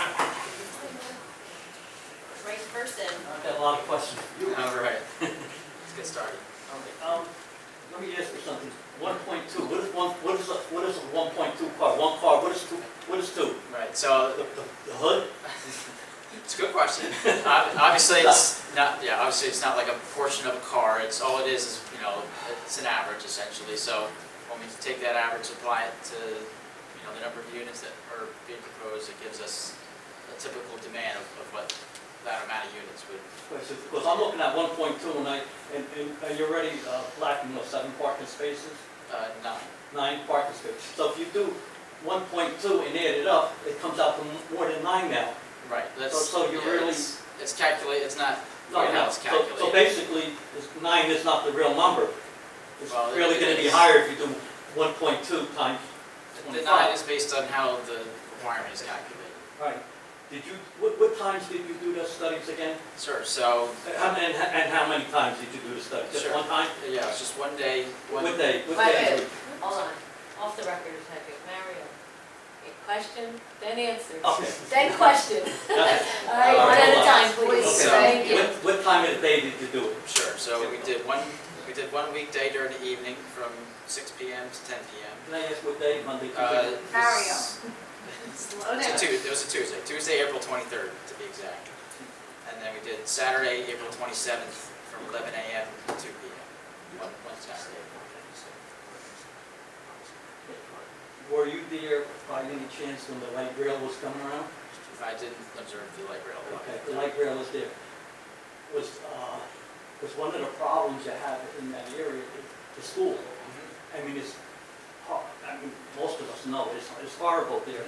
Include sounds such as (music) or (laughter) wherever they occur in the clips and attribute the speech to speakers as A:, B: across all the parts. A: (laughs)
B: um,
A: So
B: The, the the hood? (laughs)
A: it's a good question. Ob- Obviously, it's not, yeah, obviously, it's not like a portion of a car. It's, all it is is, you know, it's an average essentially. So when we take that average, apply it to, you know, the number of units that are being proposed, it gives us a typical demand of of what that amount of units would
B: Because I'm looking at one point two and I, and, and are you already uh, lacking those seven parking spaces?
A: Uh, nine.
B: Nine parking spaces. So if you do one point two and add it up, it comes out to more than nine now.
A: Right, that's.
B: So- so you
A: yeah,
B: really-
A: It's it's calculate, it's not,
B: No,
A: right now
B: no.
A: it's
B: So- So
A: calculated.
B: basically, this nine is not the real number. It's
A: Well, it-
B: really
A: it
B: gonna be
A: is.
B: higher if you do one point two times
A: The
B: twenty-five.
A: nine is based on how the requirement is calculated.
B: Right. Did you, what, what times did you do those studies again?
A: Sure, so,
B: And how, and how- and how many times did you do the study? Just
A: Sure.
B: one time?
A: yeah, it's just one day, one.
B: What day, what
C: Wait,
B: day?
C: (laughs) wait, hold on, off the record a second, Mario. A question, then answer,
B: Okay.
C: then question.
B: Okay.
C: (laughs) All right, one at a time, please,
A: Okay.
C: thank you.
B: What, what time of the day did you do it?
A: Sure, so we did one, we did one weekday during the evening from six P M to ten P M.
B: Can I ask what day, Monday,
A: Uh,
B: Tuesday?
A: this-
C: Slow down.
A: It's a Tuesday, it was a Tuesday, Tuesday, April twenty-third, to be exact. And then we did Saturday, April twenty-seventh, from eleven A M to two P M, one, one Saturday.
B: Were you there by any chance when the light rail was coming around?
A: If I didn't observe the light rail.
B: Okay, the light rail was there. Was, uh, was one of the problems you have in that area, the- the school.
A: Mhm.
B: I mean, it's, hor- I mean, most of us know, it's, it's horrible there.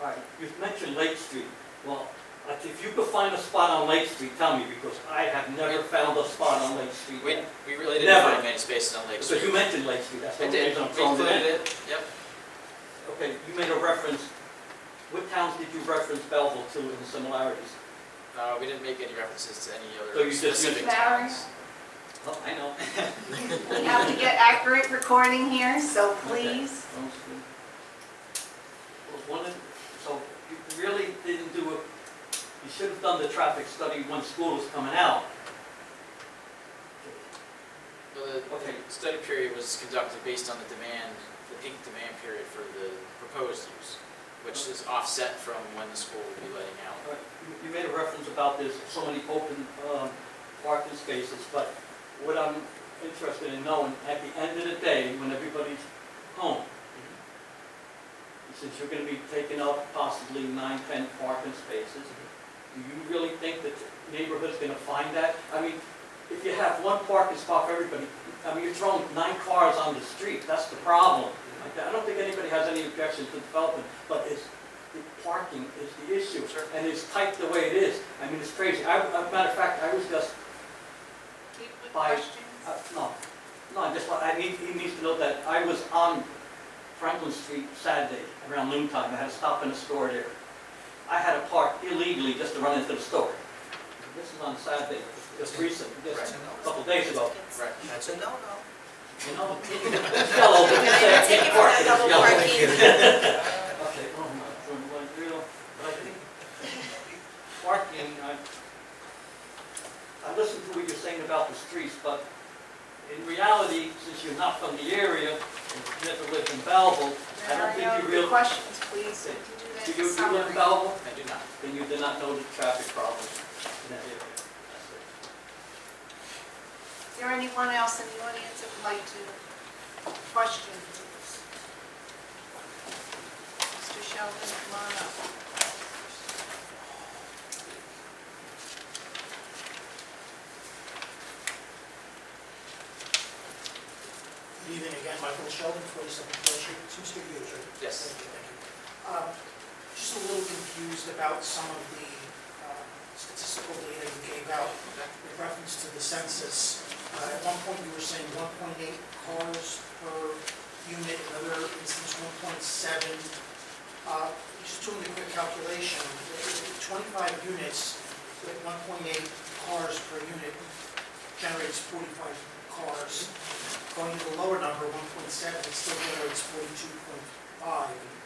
B: All right, you've mentioned Lake Street. Well, like, if you could find a spot on Lake Street, tell me, because I have never found a spot on Lake Street.
A: We,
B: yet.
A: we really didn't
B: Never.
A: find many spaces on Lake
B: Because
A: Street.
B: you mentioned Lake Street, that's the
A: I
B: only
A: did,
B: reason
A: we
B: I'm throwing it in.
A: included it, yep.
B: Okay, you made a reference, what towns did you reference Belleville to in similarities?
A: Uh, we didn't make any references to any
B: So you
A: other
B: just
A: specific
B: used-
A: towns.
B: Oh, I know.
A: (laughs)
D: We have to get accurate recording here, so please.
B: Well, one of, so you really didn't do it, you should have done the traffic study when school was coming out.
A: Well, the
B: Okay.
A: the study period was conducted based on the demand, the peak demand period for the proposed use, which is offset from when the school would be letting out.
B: All right, You you made a reference about there's so many open um, parking spaces, but what I'm interested in knowing, at the end of the day, when everybody's home, since you're gonna be taking up possibly nine, ten parking spaces, do you really think that the neighborhood's gonna find that? I mean, if you have one parking spot for everybody, I mean, you're throwing nine cars on the street, that's the problem. Like, I don't think anybody has any objection to development, but it's, the parking is the issue.
A: Sure.
B: And it's tight the way it is. I mean, it's crazy. I, I- matter of fact, I was just,
D: Keep with
B: Bye.
D: questions.
B: uh, no, no, I just, want- I need, he needs to know that I was on Franklin Street Saturday around noon time. I had to stop in a store there. I had to park illegally just to run into the store. This is on Saturday, just recent, just
A: Right.
B: a couple days ago.
A: Right, that's it.
B: You know, (laughs) this fellow didn't say I can't park. This yellow. Okay, oh my, from one real, but I think parking, I, I listen to what you're saying about the streets, but in reality, since you're not from the area and you've never lived in Belleville, I don't think you
D: Mario, the
B: really,
D: questions, please.
B: Okay.
D: If
B: do
D: you do that in summary.
B: you, do you live in Belleville?
A: I do not.
B: Then you did not know the traffic problems in that area. That's it.
D: Is there anyone else in the audience that would like to question? Mr. Sheldon, come on up.
E: Good evening again, Michael Sheldon, 47 Pearl Street, Two Street, New Jersey.
A: Yes.
E: Thank you, thank you. Um, Just a little confused about some of the um, statistical data you gave out with reference to the census. Uh, At one point, you were saying 1.8 cars per unit, another instance 1.7. Uh, Just doing a quick calculation, if 25 units with 1.8 cars per unit generates 45 cars going to the lower number, 1.7, it still generates 42.5.